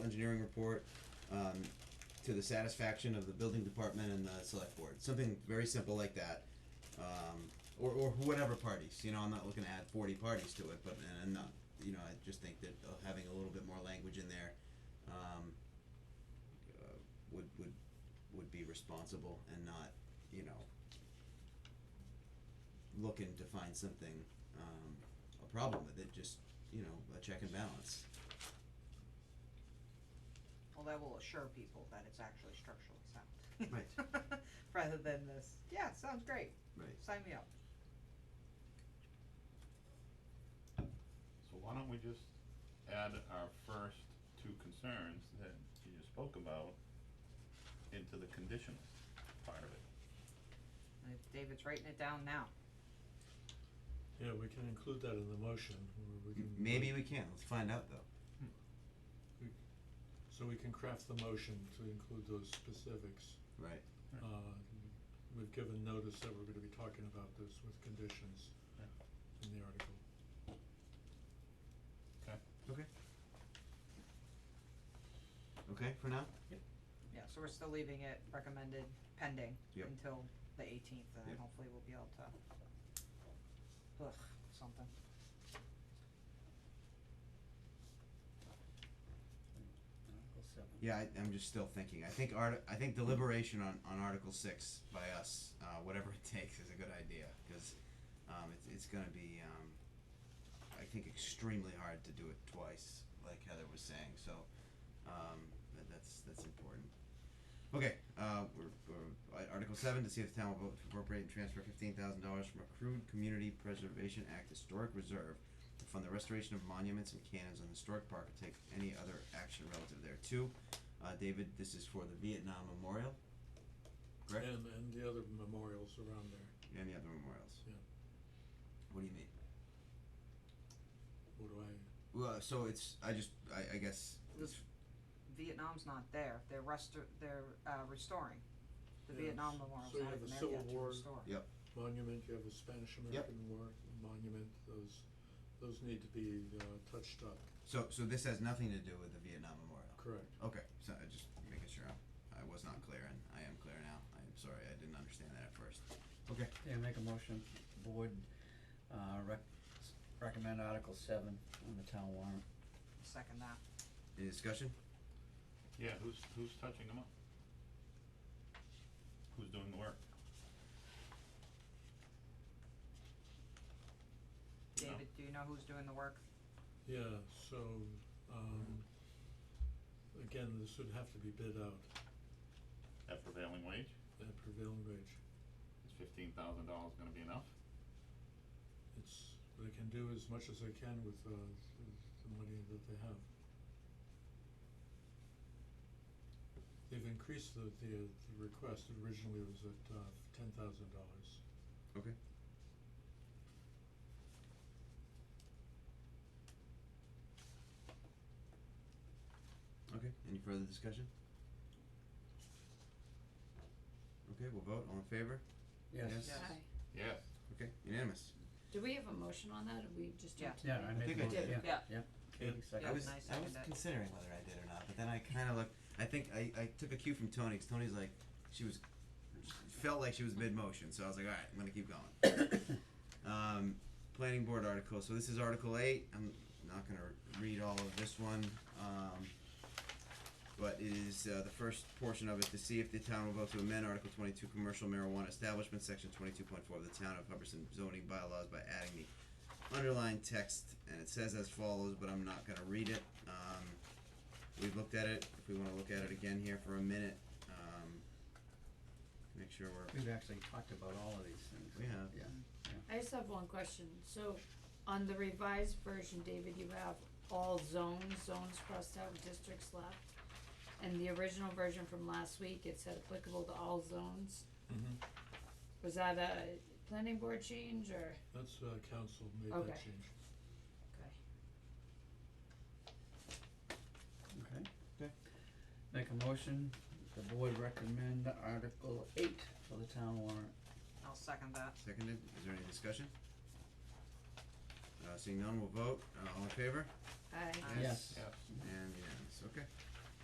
engineering report, um, to the satisfaction of the building department and the select board, something very simple like that. Um, or, or whatever parties, you know, I'm not looking to add forty parties to it, but, and, and not, you know, I just think that uh, having a little bit more language in there, um, uh, would, would, would be responsible and not, you know, looking to find something, um, a problem with it, just, you know, a check and balance. Well, that will assure people that it's actually structurally sound. Right. Rather than this, yeah, sounds great, Right. sign me up. So why don't we just add our first two concerns that you just spoke about into the conditional part of it? Uh, David's writing it down now. Yeah, we can include that in the motion, or we can. Maybe we can, let's find out though. So we can craft the motion to include those specifics. Right. Right. Uh, we've given notice that we're gonna be talking about this with conditions Yeah. in the article. Okay. Okay. Okay, for now? Yeah, so we're still leaving it recommended pending Yep. until the eighteenth, and then Yep. hopefully we'll be able to ugh, something. Article seven. Yeah, I, I'm just still thinking, I think art, I think deliberation on, on Article six by us, uh, whatever it takes is a good idea, cause, um, it's, it's gonna be, um, I think extremely hard to do it twice, like Heather was saying, so, um, that, that's, that's important. Okay, uh, we're, we're, at Article seven, to see if the town will vote to appropriate and transfer fifteen thousand dollars from accrued Community Preservation Act Historic Reserve to fund the restoration of monuments and cannons on the historic park and take any other action relative thereto. Uh, David, this is for the Vietnam Memorial, correct? And, and the other memorials around there, And the other memorials. Yeah. What do you mean? what do I, Well, so it's, I just, I, I guess, This- Vietnam's not there, they're restor- they're uh restoring. The Yeah, Vietnam s- Memorial's so you not have even a there Civil yet to War restore. Yep. monument, you have a Spanish American War monument, those, those need to be, uh, touched up, so, so this has nothing to do with the Vietnam Memorial? correct? Okay, so I just making sure I'm, I was not clear and I am clear now. I am sorry, I didn't understand that at first. Okay. Yeah, make a motion, board, uh, rec- s- recommend Article seven on the town warrant. Second that. Any discussion? Yeah, who's, who's touching them up? Who's doing the work? No. David, do you know who's doing the work? Yeah, so, um, again, this would have to be bid out At prevailing wage, at prevailing wage. is fifteen thousand dollars gonna be enough? It's, they can do as much as they can with, uh, the, the money that they have. They've increased the, the, the request originally was at, uh, ten thousand dollars. Okay. Okay, any further discussion? Okay, we'll vote, all in favor? Yes. Yes. Aye. Yes. Okay, unanimous. Do we have a motion on that, or we just do Yeah. Yeah, I made think the I motion, did. yeah, yeah. Yeah. Katie Yeah. seconded. I was, and I I was second it. considering whether I did or not, but then I kinda looked, I think, I, I took a cue from Tony, 'cause Tony's like, she was, felt like she was mid-motion, so I was like, alright, I'm gonna keep going. Um, planning board article, so this is article eight, I'm not gonna read all of this one, um, but it is, uh, the first portion of it, to see if the town will vote to amend article twenty-two, commercial marijuana establishment, section twenty-two point four of the town of Hubbardson zoning bylaws by adding the underlined text, and it says as follows, but I'm not gonna read it. Um, we've looked at it, if we wanna look at it again here for a minute, um, make sure we're, We've actually talked about all of these things. We have. Yeah. I just have one question, so on the revised version, David, you have all zones, zones crossed out, districts left. And the original version from last week, it said applicable to all zones, Mm-hmm. was that a planning board change, or, That's, uh, council made that Okay. change. okay, Okay. Okay. Make a motion, the board recommend Article eight for the town warrant. I'll second that. seconded, is there any discussion? Uh, seeing none, we'll vote, uh, all in favor, aye. Aye. Yes. Yes. and unanimous, okay.